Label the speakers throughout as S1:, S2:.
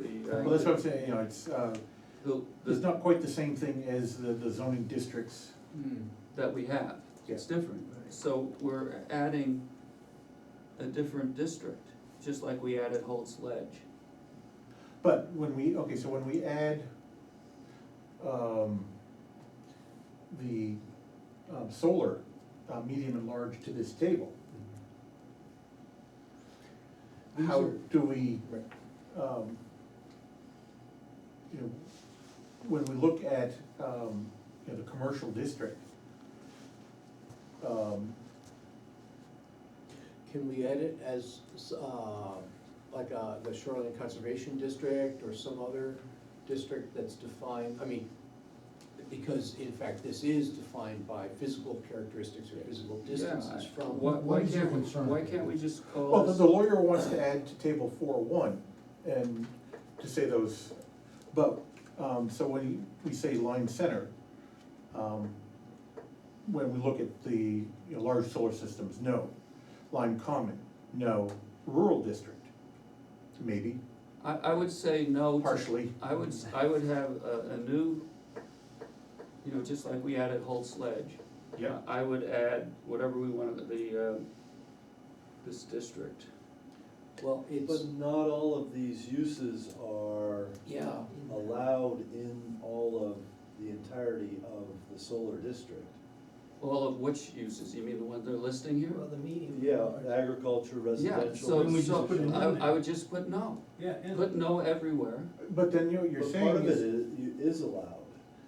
S1: right?
S2: Well, that's what I'm saying, you know, it's, uh,
S1: The- the-
S2: it's not quite the same thing as the, the zoning districts.
S1: hmm, that we have, it's different.
S2: Right.
S1: So we're adding a different district, just like we added Holt's Ledge.
S2: But when we, okay, so when we add, um, the, um, solar, uh, medium and large to this table,
S1: These
S2: how
S1: are-
S2: do we,
S1: Right.
S2: um, you know, when we look at, um, you know, the commercial district, um,
S3: Can we edit as, uh, like, uh, the shoreline conservation district or some other district that's defined, I mean, because in fact, this is defined by physical characteristics or physical distances
S1: Yeah,
S3: from.
S1: Why, why
S4: What is your
S1: can't, we-
S4: concern?
S1: why can't we just
S2: Well,
S1: call
S2: the-
S1: this?
S2: Oh, the lawyer wants to add to table four one and to say those, but, um, so when we say line center, um, when we look at the, you know, large solar systems, no. Line common, no. Rural district, maybe,
S1: I, I would say no. to-
S2: partially.
S1: I would, s- I would have a, a new, you know, just like we added Holt's Ledge. I would add whatever we want, the, uh, this district.
S3: Well,
S5: But
S3: it's,
S5: not all of these uses are
S3: yeah,
S5: allowed in all of the entirety of the solar district.
S1: All of which uses, you mean the ones they're listing here?
S6: Well, the medium.
S5: Yeah, agriculture,
S1: Yeah,
S5: residential.
S4: Then
S1: so,
S4: we just put it
S1: so,
S4: in there.
S1: I, I would just put no,
S4: Yeah,
S1: put no everywhere.
S2: But then you, you're
S5: But part
S2: saying
S5: of it
S2: is,
S5: is, is allowed.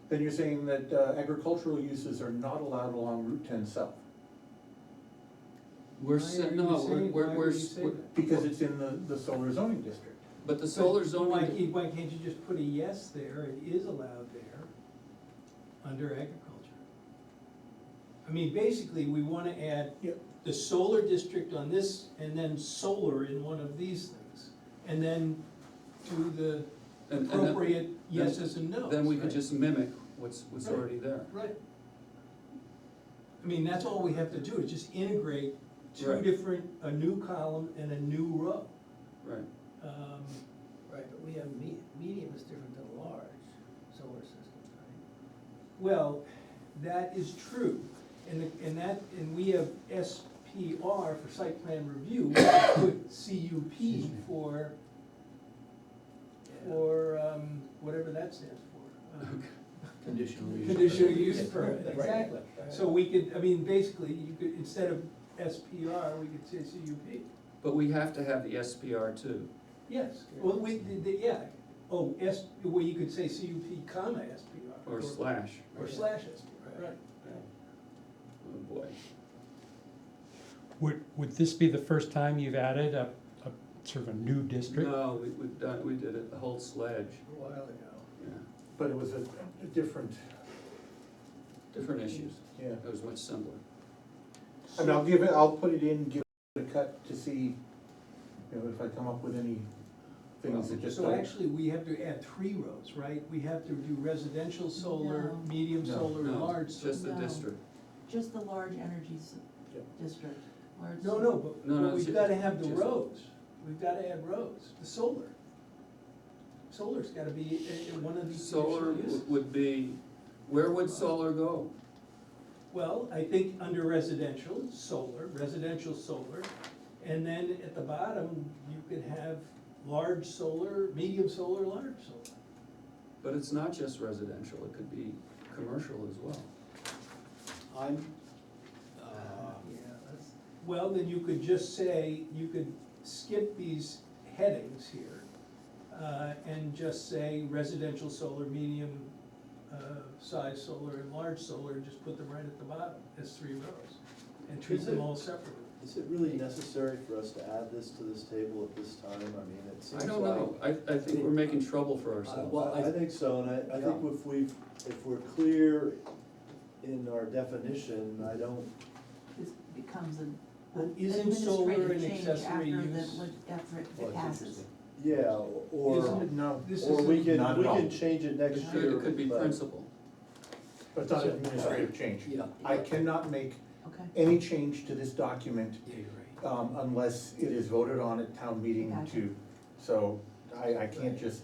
S2: then you're saying that uh, agricultural uses are not allowed along Route ten south.
S1: We're, sa- no, we're, we're, we're, s- we're-
S2: Because it's in the, the solar zoning district.
S1: but the solar
S4: Why
S1: zoning,
S4: can't, why can't you just put a yes there, it is allowed there, under agriculture? I mean, basically, we wanna add
S2: Yep.
S4: the solar district on this, and then solar in one of these things. And then do the
S1: and, and then-
S4: appropriate yeses and nos,
S1: then we could
S4: right?
S1: just mimic what's, what's
S4: Right.
S1: already there.
S4: Right. I mean, that's all we have to do, is just integrate two
S1: Right.
S4: different, a new column and a new row.
S1: Right,
S4: Um,
S6: Right, but we have me, medium is different than large solar systems, right?
S4: Well, that is true, and, the- and that, and we have SPR for site plan review, we could put CUP CUP for,
S6: Yeah.
S4: for, um, whatever that stands for. um,
S3: conditional use.
S4: Conditional
S3: permit.
S4: use
S3: Yeah,
S4: permit,
S3: right.
S4: exactly. So we could, I mean, basically, you could, instead of SPR, we could say CUP.
S1: but we have to have the SPR too.
S4: Yes, well, we, the, the- yeah, oh, S, well, you could say CUP comma SPR.
S1: Or slash,
S4: Or slash SPR, right.
S1: oh boy.
S7: Would, would this be the first time you've added a, a sort of a new district?
S1: No, we, we've done, we did it the whole sledge,
S6: A while ago.
S1: yeah,
S2: But it was a, a different,
S1: different issues,
S2: yeah.
S1: it was much simpler.
S2: I mean, I'll give it, I'll put it in, give it a cut to see, you know, if I come up with any things that just
S4: So
S2: don't.
S4: actually, we have to add three rows, right? We have to do residential solar,
S8: No.
S4: medium
S2: No.
S4: solar, and
S1: No,
S4: large solar.
S1: Just the
S8: No.
S1: district,
S8: Just the large energies
S2: Yep.
S8: district, large.
S4: No, no, but,
S1: No, no,
S4: but we've
S1: ju-
S4: gotta have the
S1: just-
S4: rows, we've gotta add rows, the solar. Solar's gotta be uh, uh, one of these
S1: solar
S4: conditional
S1: w-
S4: uses.
S1: would be, where would solar go?
S4: Well, I think under residential, solar, residential solar, and then at the bottom, you could have large solar, medium solar, large solar.
S1: But it's not just residential, it could be commercial as well.
S3: I'm, uh,
S6: Yeah, that's,
S4: Well, then you could just say, you could skip these headings here, uh, and just say residential solar, medium, uh, size solar and large solar, and just put them right at the bottom as three rows, and treat them all separately.
S5: Is it really necessary for us to add this to this table at this time? I mean, it seems
S1: I
S5: like.
S1: don't know, Uh, I, I think we're making trouble for ourselves.
S3: well,
S5: I,
S3: I-
S5: I think so, and I, I think
S3: Yeah.
S5: if we, if we're clear in our definition, I don't,
S8: This becomes an
S4: Well,
S8: an
S4: isn't solar an
S8: administrative change after
S4: accessory
S8: the,
S4: use?
S8: leg- after
S3: Well,
S8: it
S3: it's
S8: passes.
S5: yeah,
S4: Isn't
S5: or,
S4: it-
S2: No,
S4: This
S5: or we
S4: isn't-
S5: can,
S2: Not
S5: we
S2: at all.
S5: can change it next
S1: It could,
S5: year.
S1: it could be
S5: but-
S1: principle.
S2: but it's not an administrative change.
S3: yeah,
S2: I cannot make
S8: Okay,
S2: any change to this document,
S3: yeah, you're right.
S2: um, unless it is voted on at town meeting
S8: Gotcha.
S2: to, so I, I can't just